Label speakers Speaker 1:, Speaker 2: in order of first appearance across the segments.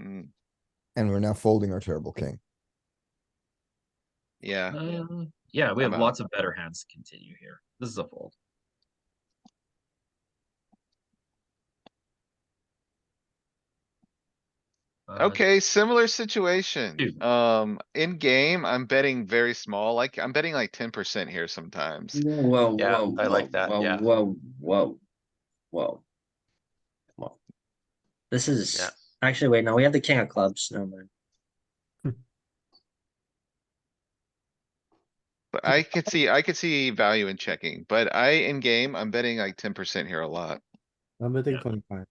Speaker 1: Mm,
Speaker 2: and we're now folding our terrible king.
Speaker 1: yeah,
Speaker 3: Uh, yeah, we
Speaker 1: I'm
Speaker 3: have
Speaker 1: out.
Speaker 3: lots of better hands to continue here. This is a fold. Uh,
Speaker 1: okay, similar situation.
Speaker 3: Dude.
Speaker 1: Um, in game, I'm betting very small, like, I'm betting like ten percent here
Speaker 4: Mm.
Speaker 1: sometimes.
Speaker 4: Whoa,
Speaker 5: Yeah,
Speaker 4: whoa,
Speaker 5: I like
Speaker 4: whoa,
Speaker 5: that,
Speaker 4: whoa,
Speaker 5: yeah.
Speaker 4: Whoa, whoa, whoa. Come on. This is,
Speaker 5: Yeah.
Speaker 4: actually, wait, no, we have the king of clubs, no man.
Speaker 1: But I could see, I could see value in checking, but I, in game, I'm betting like ten percent here a lot.
Speaker 6: I'm betting
Speaker 3: Yeah.
Speaker 6: twenty-five.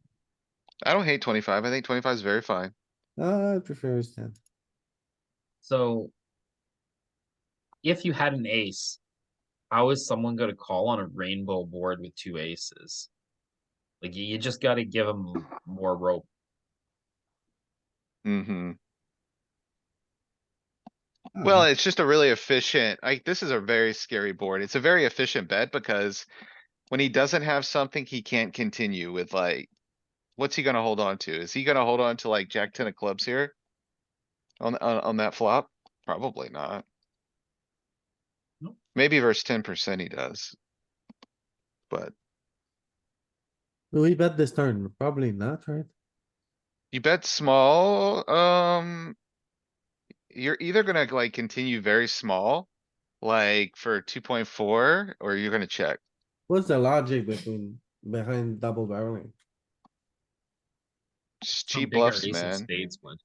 Speaker 1: I don't hate twenty-five, I think twenty-five is very fine.
Speaker 6: Uh, I prefer his ten.
Speaker 3: So. If you had an ace, how is someone gonna call on a rainbow board with two aces? Like, you- you just gotta give them more rope.
Speaker 1: Mm-hmm. Well, it's just a really efficient, like, this is a very scary board. It's a very efficient bet because when he doesn't have something, he can't continue with like, what's he gonna hold on to? Is he gonna hold on to like jack ten of clubs here? On, on, on that flop? Probably not.
Speaker 3: Nope.
Speaker 1: Maybe versus ten percent he does. But
Speaker 6: Will we bet this turn? Probably not, right?
Speaker 1: you bet small, um. You're either gonna like continue very small, like for two point four, or you're gonna check.
Speaker 6: What's the logic between, behind double barreling?
Speaker 1: Just
Speaker 3: Some
Speaker 1: cheap
Speaker 3: bigger
Speaker 1: bluffs,
Speaker 3: ace of
Speaker 1: man.
Speaker 3: spades would.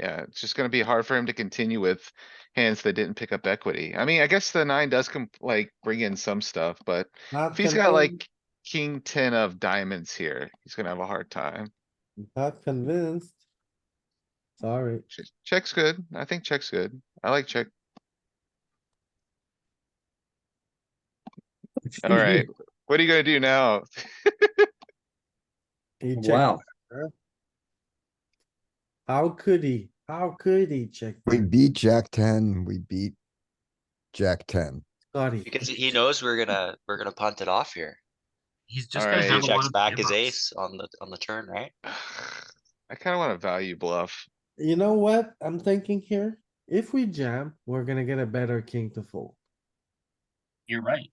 Speaker 1: Yeah, it's just gonna be hard for him to continue with hands that didn't pick up equity. I mean, I guess the nine does come like bring in some stuff, but
Speaker 6: Not
Speaker 1: if he's got
Speaker 6: convinced-
Speaker 1: like king ten of diamonds here, he's gonna have a hard time.
Speaker 6: Not convinced. Sorry,
Speaker 1: Ch- Check's good. I think check's good. I like check. Alright, what are you gonna do now?
Speaker 6: he checked.
Speaker 4: Wow,
Speaker 6: How could he? How could he check?
Speaker 2: We beat Jack ten, we beat Jack ten.
Speaker 6: Scotty.
Speaker 5: Because he knows we're gonna, we're gonna punt it off here.
Speaker 3: He's just
Speaker 1: Alright. He
Speaker 3: gonna
Speaker 5: He
Speaker 3: have a lot
Speaker 5: checks
Speaker 3: of.
Speaker 5: back his
Speaker 3: jam-ups.
Speaker 5: ace on the, on the turn, right?
Speaker 1: I kinda want a value bluff.
Speaker 6: You know what I'm thinking here? If we jam, we're gonna get a better king to fold.
Speaker 3: You're right.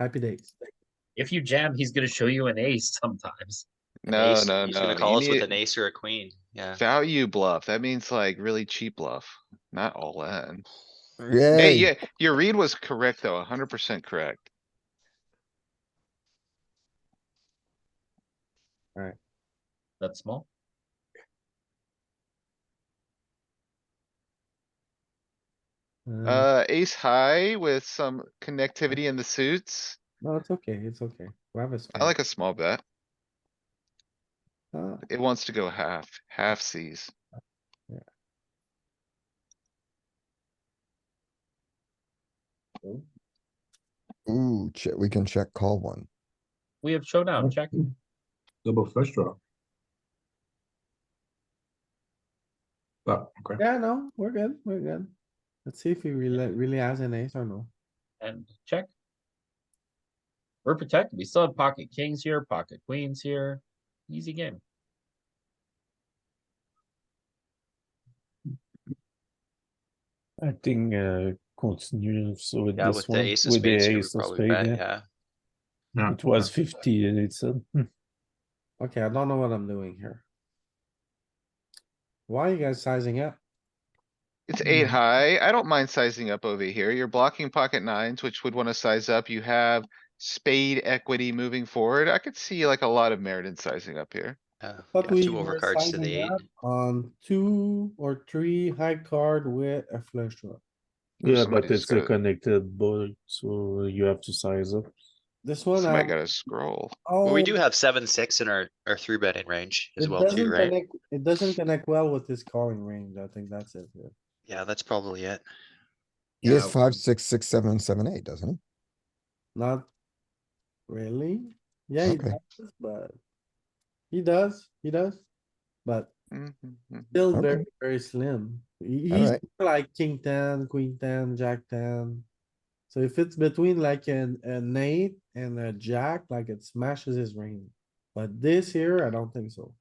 Speaker 6: Happy days.
Speaker 3: If you jam, he's gonna show you an ace sometimes.
Speaker 5: An
Speaker 1: No,
Speaker 5: ace-
Speaker 1: no,
Speaker 5: He's
Speaker 1: no.
Speaker 5: gonna
Speaker 1: you
Speaker 5: call us with
Speaker 1: need
Speaker 5: an ace or a queen, yeah.
Speaker 1: Value bluff. That means like really cheap bluff, not all in. Hey,
Speaker 2: Yay,
Speaker 1: Mm, yeah, your read was correct though, hundred percent correct.
Speaker 3: That's small.
Speaker 7: Mm-hmm.
Speaker 6: Uh,
Speaker 1: Uh, ace high with some connectivity in the suits.
Speaker 6: no, it's okay, it's okay. We have a
Speaker 7: Mm-hmm.
Speaker 1: I
Speaker 6: spade.
Speaker 1: like a small bet.
Speaker 6: Uh,
Speaker 1: It wants to go half, half sees.
Speaker 2: ooh, che- we can check call one.
Speaker 3: We have showdown, check.
Speaker 8: Double flush draw. Well, okay.
Speaker 6: Yeah, no, we're good, we're good. Let's see if he really, really has an ace or no.
Speaker 3: And check. We're protected. We still have pocket kings here, pocket queens here. Easy game.
Speaker 7: I think uh continues with
Speaker 5: Yeah,
Speaker 7: this
Speaker 5: with the
Speaker 7: one
Speaker 5: ace of spades, you would probably bet,
Speaker 7: yeah.
Speaker 5: yeah.
Speaker 8: Yeah.
Speaker 7: It was fifty and it's uh, hmm,
Speaker 6: Okay, I don't know what I'm doing here. Why are you guys sizing up?
Speaker 1: It's eight
Speaker 7: Mm-hmm.
Speaker 1: high. I don't mind sizing up over here. You're blocking pocket nines, which would wanna size up. You have spade equity moving forward. I could see like a lot of merit in sizing up here.
Speaker 5: Yeah,
Speaker 6: But
Speaker 5: Yeah,
Speaker 6: we
Speaker 5: two
Speaker 6: were
Speaker 5: overcards to
Speaker 6: sizing
Speaker 5: the eight.
Speaker 6: up On two or three high card with a flush draw.
Speaker 7: yeah,
Speaker 1: somebody
Speaker 7: but
Speaker 1: just
Speaker 7: it's a
Speaker 1: gotta-
Speaker 7: connected board, so you have to size up.
Speaker 6: This one.
Speaker 1: Somebody
Speaker 6: I'm-
Speaker 1: got a scroll.
Speaker 5: Well, we
Speaker 6: oh,
Speaker 5: do have seven, six in our, our three betting range as
Speaker 6: it
Speaker 5: well too,
Speaker 6: doesn't
Speaker 5: right?
Speaker 6: connect- It doesn't connect well with this calling range. I think that's it. yeah.
Speaker 5: Yeah, that's probably it.
Speaker 2: He has five, six, six, seven, and seven, eight, doesn't he?
Speaker 6: Not really. Yeah, he
Speaker 2: Okay.
Speaker 6: does, but he does, he does. But
Speaker 1: Mhm, mhm.
Speaker 6: still
Speaker 2: Okay.
Speaker 6: very, very slim. He- He's
Speaker 2: Alright,
Speaker 6: like king ten, queen ten, jack ten. So if it's between like an, an eight and a jack, like it smashes his range. But this here, I don't think so.